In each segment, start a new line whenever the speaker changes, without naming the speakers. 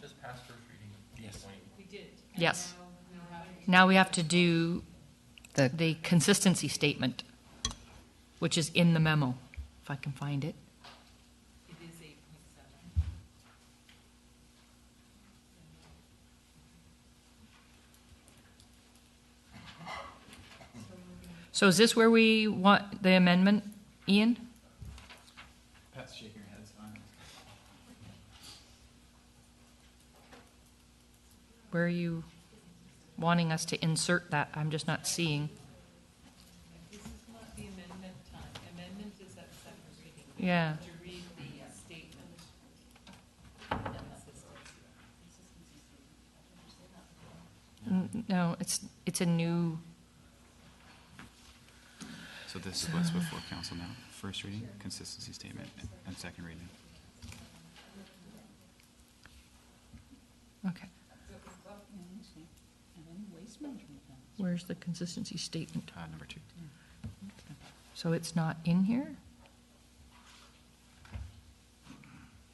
just passed first reading of
Yes.
twenty?
We did. And
Yes.
now- now how do we-
Now we have to do
The-
the consistency statement, which is in the memo, if I can find it.
It is eight point seven.
So is this where we want the amendment, Ian?
Pat's shaking her head, it's fine.
Where are you wanting us to insert that? I'm just not seeing.
This is not the amendment time. Amendment is at second reading.
Yeah.
To read the statement. And consistency.
N- No, it's, it's a new,
So this is what's before council now, first reading, consistency statement, and second reading.
okay. Where's the consistency statement?
Uh, number two.
So it's not in here?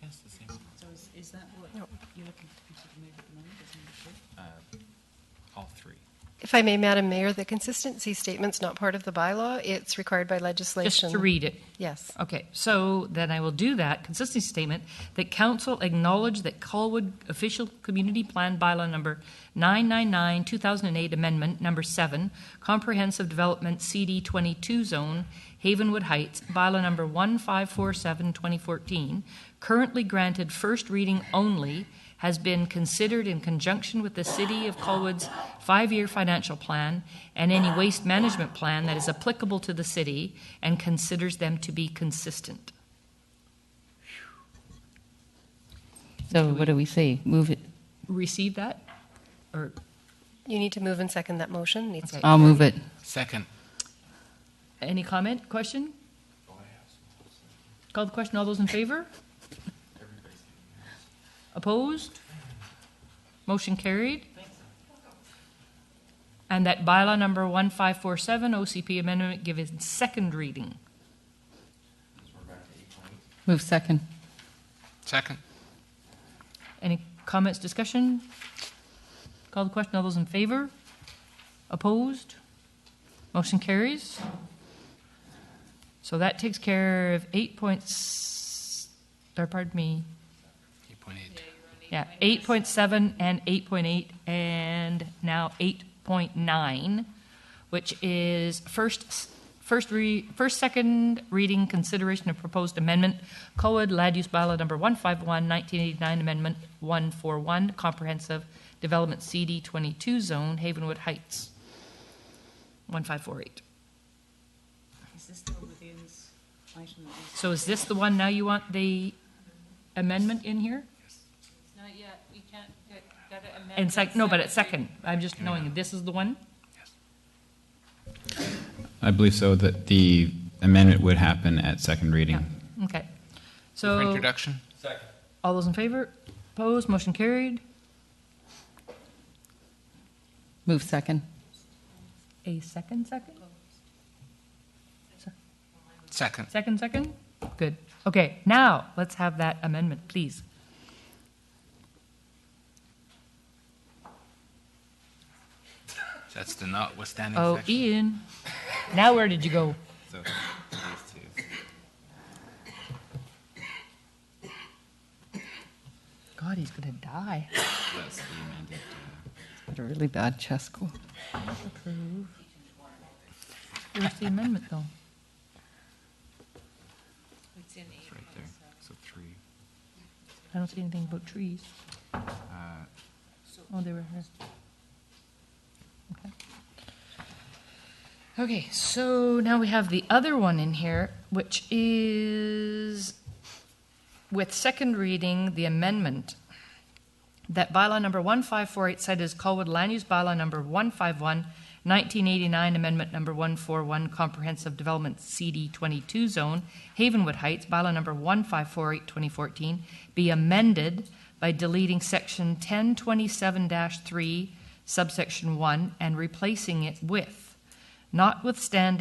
Yes, the same.
So is, is that what you're looking to consider maybe at the moment, is number two?
All three.
If I may, Madam Mayor, the consistency statement's not part of the bylaw. It's required by legislation.
Just to read it.
Yes.
Okay, so then I will do that consistency statement that council acknowledge that Colwood official community plan bylaw number 999 2008 amendment number 7 comprehensive development CD 22 zone Havenwood Heights bylaw number 1547 2014 currently granted first reading only has been considered in conjunction with the City of Colwood's five year financial plan and any waste management plan that is applicable to the city and considers them to be consistent.
So what do we say? Move it,
Receive that? Or,
You need to move and second that motion. Needs
okay.
I'll move it.
Second.
Any comment, question? Call the question. All those in favor? Opposed? Motion carried. And that bylaw number 1547 OCP amendment given second reading.
Move second.
Second.
Any comments, discussion? Call the question. All those in favor? Opposed? Motion carries. So that takes care of eight points, or pardon me,
8.8.
yeah, eight point seven and eight point eight, and now eight point nine, which is first, s- first re, first, second reading consideration of proposed amendment, COED Land Use Bylaw number 151, 1989 amendment one four one, comprehensive development CD twenty-two zone, Havenwood Heights, one five four eight.
Is this the one with Ian's item that is?
So is this the one now you want the amendment in here?
Not yet, we can't, get- gotta amend.
And sec, no, but
at
it's second, I'm just knowing, this is the one?
I believe so, that the amendment would happen at second reading.
Okay. So.
For introduction.
Second.
All those in favor? Opposed? Motion carried.
Move second.
A second, second?
Second.
Second, second? Good. Okay, now let's have that amendment, please.
That's the notwithstanding
Oh,
section.
Ian, now where did you go?
So these two.
God, he's gonna die.
That's the amended.
Got a really bad chess school.
Where's the amendment, though?
It's in eight
It's right there.
point seven.
So three.
I don't see anything about trees.
Uh,
Oh, they were here. Okay. Okay, so now we have the other one in here, which is with second reading, the amendment that bylaw number 1548 said is Colwood Land Use Bylaw number 151, 1989 Amendment number 141 Comprehensive Development CD 22 Zone, Havenwood Heights, bylaw number 1548, 2014, be amended by deleting section 1027-3 subsection 1 and replacing it with, notwithstanding